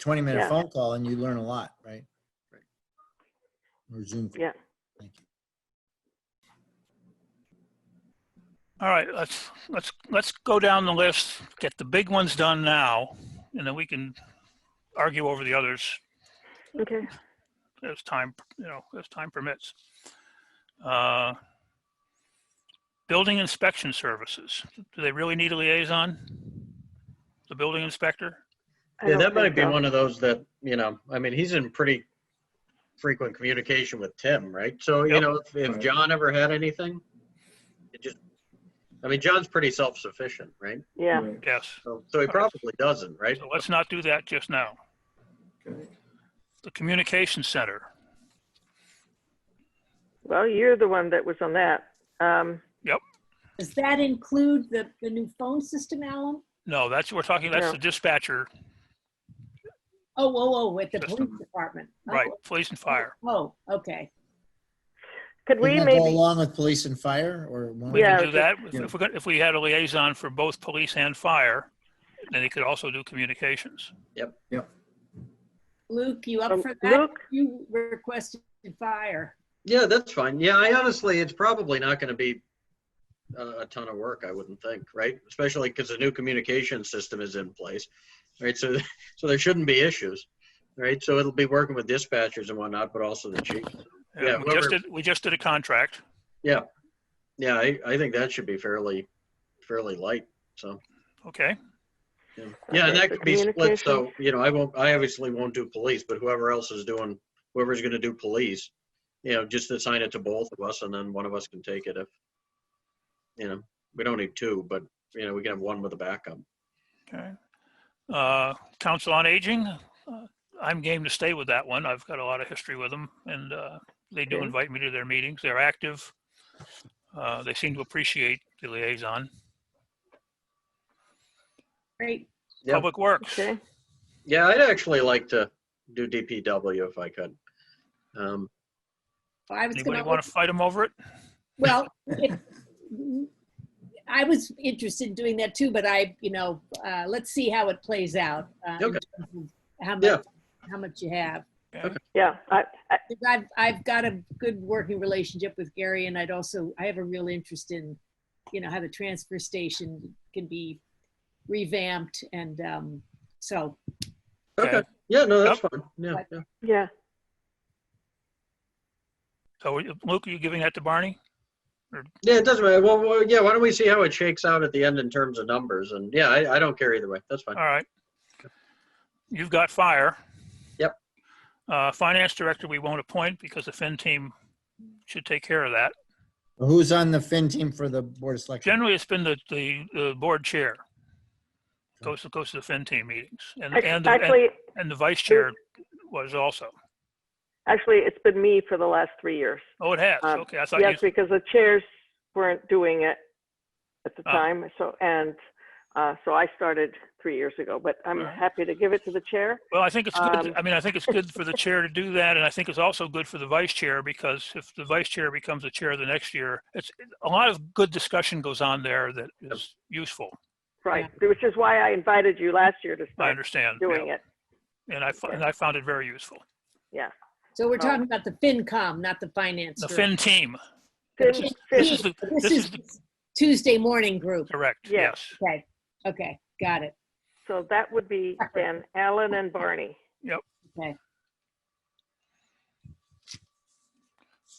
20 minute Yeah. phone call and you learn a lot, right? Or Zoom. call. Yeah. Thank you. All right, let's, let's, let's go down the list, get the big ones done now, and then we can argue over the others Okay. as time, you know, as time permits. Uh, Building inspection services, do they really need a liaison? The building inspector? I Yeah, don't that might think be so. one of those that, you know, I mean, he's in pretty frequent communication with Tim, right? So, you Yep. know, if, if John ever had anything, it just, I mean, John's pretty self-sufficient, right? Yeah. Right, Yes, So so he probably doesn't, right? so let's not do that just now. okay. The communication center, Well, you're the one that was on that. Um, Does that include the, the new phone system, Alan? no, that's, we're talking, that's No. the dispatcher, Oh, oh, oh, with the police System. department. Oh, right, police and fire. Oh, okay. could we Wouldn't that Go maybe? along with police and fire or? one? We Yeah, can I do was that. just- If- Yeah. If we, got- if we had a liaison for both police and fire, then they could also do communications. Luke, you up Oh, Um, for that? Luke? You requested fire. Yeah, that's fine. Yeah, I honestly, it's probably not going to be a, a ton of work, I wouldn't think, right? Especially because the new communication system is in place, right? So, so there shouldn't be issues, right? So it'll be working with dispatchers and whatnot, but also the chief. Uh, Yeah, We just whoever- did, we just did a contract. Yeah, I, I think that should be fairly, fairly light, so. Okay, yeah. Yeah, Okay, and that so could be split, so, communications. you know, I won't, I obviously won't do police, but whoever else is doing, whoever's gonna do police, you know, just assign it to both of us and then one of us can take it if, you know, we don't need two, but, you know, we can have one with a backup. okay. Uh, Council on Aging, uh, I'm game to stay with that one. I've got a lot of history with them and uh, they do Okay. invite me to their meetings. They're active. Uh, They seem to appreciate the liaison. Great. Yeah. Public Works, Okay. Yeah, I'd actually like to do DPW if I could. Um, Well, I was anybody gonna, want to fight them over it? well, if- I was interested in doing that too, but I, you know, uh, let's see how it plays out. uh, in Okay. terms of How Yeah. much, how much you have. Yeah. I, I, 'Cause I've, I've got a good working relationship with Gary and I'd also, I have a real interest in, you know, how the transfer station can be revamped and, um, so okay, yeah, no, that's fine, yeah, yeah. yeah. So are you- Oh, Luke, are you giving that to Barney? Yeah, it doesn't matter. Well, well, yeah, why don't we see how it shakes out at the end in terms of numbers? And yeah, I, I don't care either way. That's fine. All right. You've got fire. Yep. Uh, finance director, we won't appoint because the fin team should take care of that. Who's on the Fin team for the Board of Selectmen? Generally, it's been the, the, the board chair. Goes to, goes to the fin team meetings and, Act- and, the- and- Actually, and the vice chair was also. actually, it's been me for the last three years. Oh, it has. Um, Okay, I thought you, Yes, because the chairs weren't doing it at the Ah. time, so, and, uh, so I started three years ago, but I'm Alright. happy to give it to the chair. well, I think it's good. um, I mean, I think it's good for the chair to do that. And I think it's also good for the vice chair because if the vice chair becomes the chair the next year, it's, a lot of good discussion goes on there that is useful. Right, which is why I invited you last year to I start understand. yeah. doing it. And I, fo- and I found it very useful. So we're Oh. talking about the FinCom, not the finance. The group. Fin team, Fin- This is- fin- this is the- This this is is Tuesday morning group. correct, Yes. yes. Okay, okay, got it. So that would be then Alan and Barney.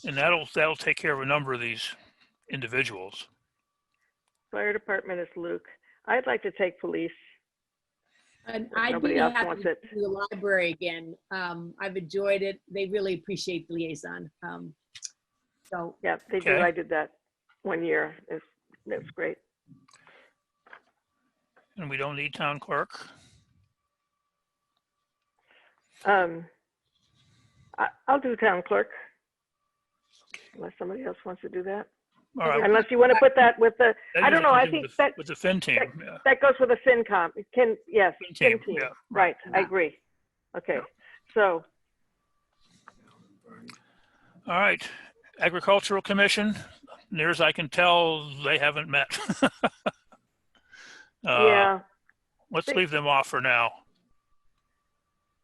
And that'll, that'll take care of a number of these individuals. Fire department is Luke. I'd like to take police. And If I'd be nobody else happy wants to it. do the library again. Um, I've enjoyed it. They really appreciate the liaison. Um, so, Yeah, they do. Okay. I did that one year. It's, it's great. And we don't need town clerk. Um, I, I'll do town clerk. Unless somebody else wants to do that. All right. Unless you want to put that with the, that I don't usually know, I do with think the- that- With the Fin team, yeah. that goes with a FinCom. It Can, yes, Fin Fin team, team. yeah. Right, I Yeah. agree. Okay, so, All right. Agricultural Commission, near as I can tell, they haven't met. Uh, yeah, Let's they- leave them off for now.